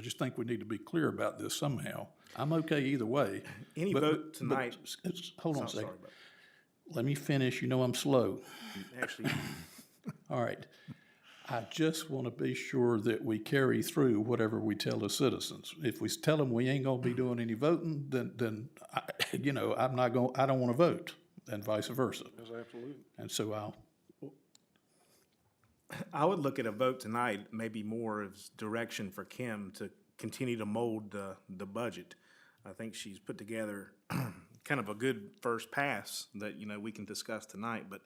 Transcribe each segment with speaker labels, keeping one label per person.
Speaker 1: just think we need to be clear about this somehow. I'm okay either way.
Speaker 2: Any
Speaker 1: but-
Speaker 2: vote
Speaker 1: but-
Speaker 2: tonight,
Speaker 1: s- s- Hold on
Speaker 2: I'm
Speaker 1: a
Speaker 2: sorry,
Speaker 1: second. Let me finish. You know I'm slow.
Speaker 2: but actually,
Speaker 1: All right. I just want to be sure that we carry through whatever we tell the citizens. If we tell them we ain't gonna be doing any voting, then, then, I- you know, I'm not gonna, I don't want to vote, and vice versa. That's absolutely. And so I'll,
Speaker 2: I would look at a vote tonight, maybe more as direction for Kim to continue to mold the, the budget. I think she's put together kind of a good first pass that, you know, we can discuss tonight, but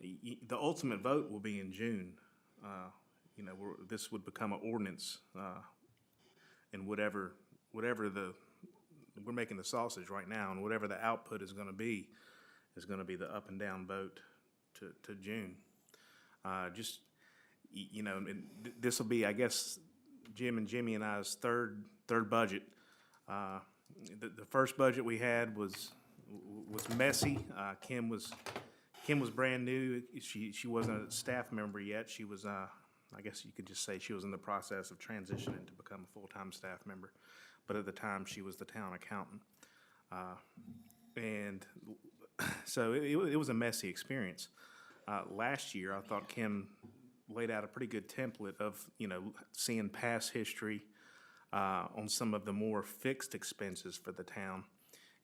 Speaker 2: y- y- the ultimate vote will be in June. Uh, You know, we're, this would become an ordinance, uh, and whatever, whatever the, we're making the sausage right now, and whatever the output is gonna be, is gonna be the up and down vote to, to June. Uh, just, y- you know, and th- this will be, I guess, Jim and Jimmy and I's third, third budget. Uh, The, the first budget we had was, w- was messy. Uh, Kim was, Kim was brand new. She, she wasn't a staff member yet. She was, uh, I guess you could just say she was in the process of transitioning to become a full-time staff member. But at the time, she was the town accountant. Uh, And so it, it wa- it was a messy experience. Uh, last year, I thought Kim laid out a pretty good template of, you know, seeing past history uh, on some of the more fixed expenses for the town.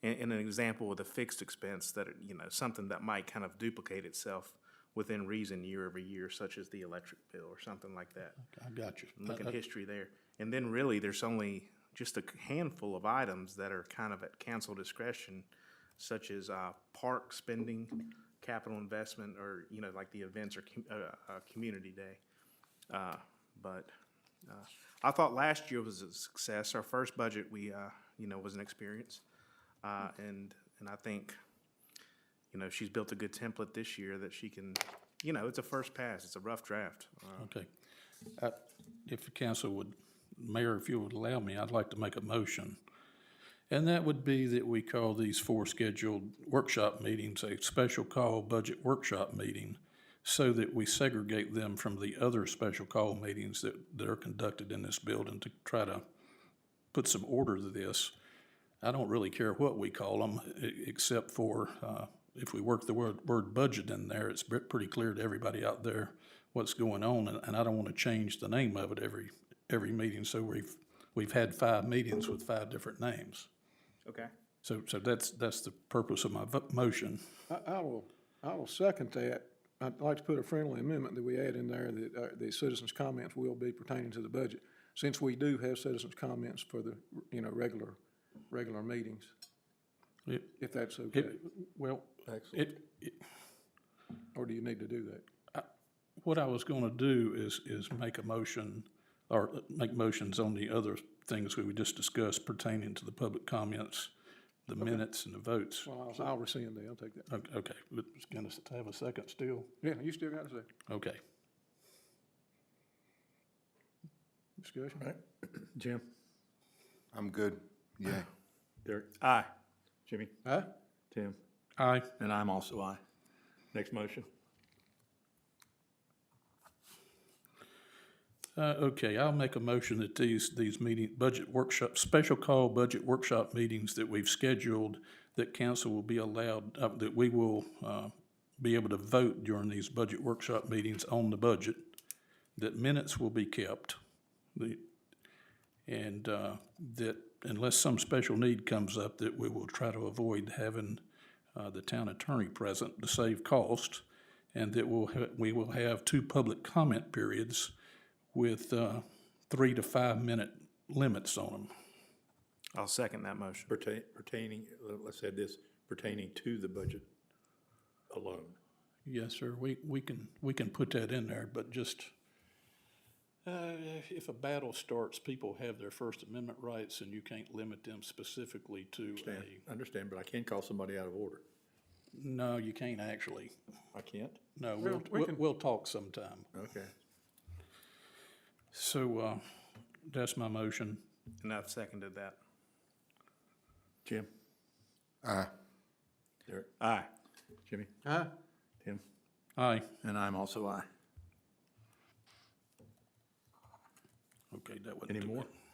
Speaker 2: And, and an example with a fixed expense that, you know, something that might kind of duplicate itself within reason year over year, such as the electric bill or something like that
Speaker 1: I got you.
Speaker 2: look at history there. And then really, there's only just a handful of items that are kind of at council discretion, such as uh, park spending, capital investment, or, you know, like the events or com- uh, uh, community day. Uh, But uh, I thought last year was a success. Our first budget, we, uh, you know, was an experience. Uh, And, and I think, you know, she's built a good template this year that she can, you know, it's a first pass. It's a rough draft. Uh,
Speaker 1: Okay. Uh, If the council would, Mayor, if you would allow me, I'd like to make a motion. And that would be that we call these four scheduled workshop meetings a special call budget workshop meeting so that we segregate them from the other special call meetings that, that are conducted in this building to try to put some order to this. I don't really care what we call them, e, except for, uh, if we work the word, word budget in there, it's pre- pretty clear to everybody out there what's going on, and, and I don't wanna change the name of it every, every meeting, so we've, we've had five meetings with five different names.
Speaker 2: Okay.
Speaker 1: So, so that's, that's the purpose of my vo- motion.
Speaker 3: I, I will, I will second that. I'd like to put a friendly amendment that we add in there that, uh, the citizens' comments will be pertaining to the budget, since we do have citizens' comments for the, you know, regular, regular meetings,
Speaker 1: It-
Speaker 3: if that's okay.
Speaker 1: it- well, it, it,
Speaker 3: Or do you need to do that?
Speaker 1: what I was gonna do is, is make a motion, or make motions on the other things we just discussed pertaining to the public comments, the minutes and the votes.
Speaker 3: Well, I'll, I'll rescind that. I'll take that.
Speaker 1: Okay, okay, we're just gonna s- have a second still?
Speaker 3: Yeah, you still got a second
Speaker 1: Okay.
Speaker 3: discussion?
Speaker 4: Jim?
Speaker 5: I'm good, yeah.
Speaker 4: Derek?
Speaker 2: Aye.
Speaker 4: Jimmy?
Speaker 3: Huh?
Speaker 4: Tim?
Speaker 1: Aye.
Speaker 4: And I'm also aye. Next motion?
Speaker 1: Uh, okay, I'll make a motion that these, these meeting, budget workshop, special call budget workshop meetings that we've scheduled, that council will be allowed, uh, that we will, uh, be able to vote during these budget workshop meetings on the budget, that minutes will be kept, the, and, uh, that unless some special need comes up, that we will try to avoid having, uh, the town attorney present to save cost, and that we'll, ha- we will have two public comment periods with uh, three to five minute limits on them.
Speaker 2: I'll second that motion.
Speaker 4: Pertain- Pertaining, let's add this, pertaining to the budget alone.
Speaker 1: Yes, sir, we, we can, we can put that in there, but just, uh, if a battle starts, people have their First Amendment rights and you can't limit them specifically to
Speaker 4: Understand,
Speaker 1: a,
Speaker 4: understand, but I can call somebody out of order.
Speaker 1: no, you can't actually.
Speaker 4: I can't?
Speaker 1: No, we'll, we'll, we'll talk sometime.
Speaker 4: Okay.
Speaker 1: So, uh, that's my motion.
Speaker 2: And I've seconded that.
Speaker 4: Jim?
Speaker 5: Aye.
Speaker 4: Derek?
Speaker 2: Aye.
Speaker 4: Jimmy?
Speaker 3: Huh?
Speaker 4: Tim?
Speaker 1: Aye.
Speaker 4: And I'm also aye.
Speaker 1: Okay, that wasn't
Speaker 4: Any
Speaker 1: too
Speaker 4: more?
Speaker 1: bad.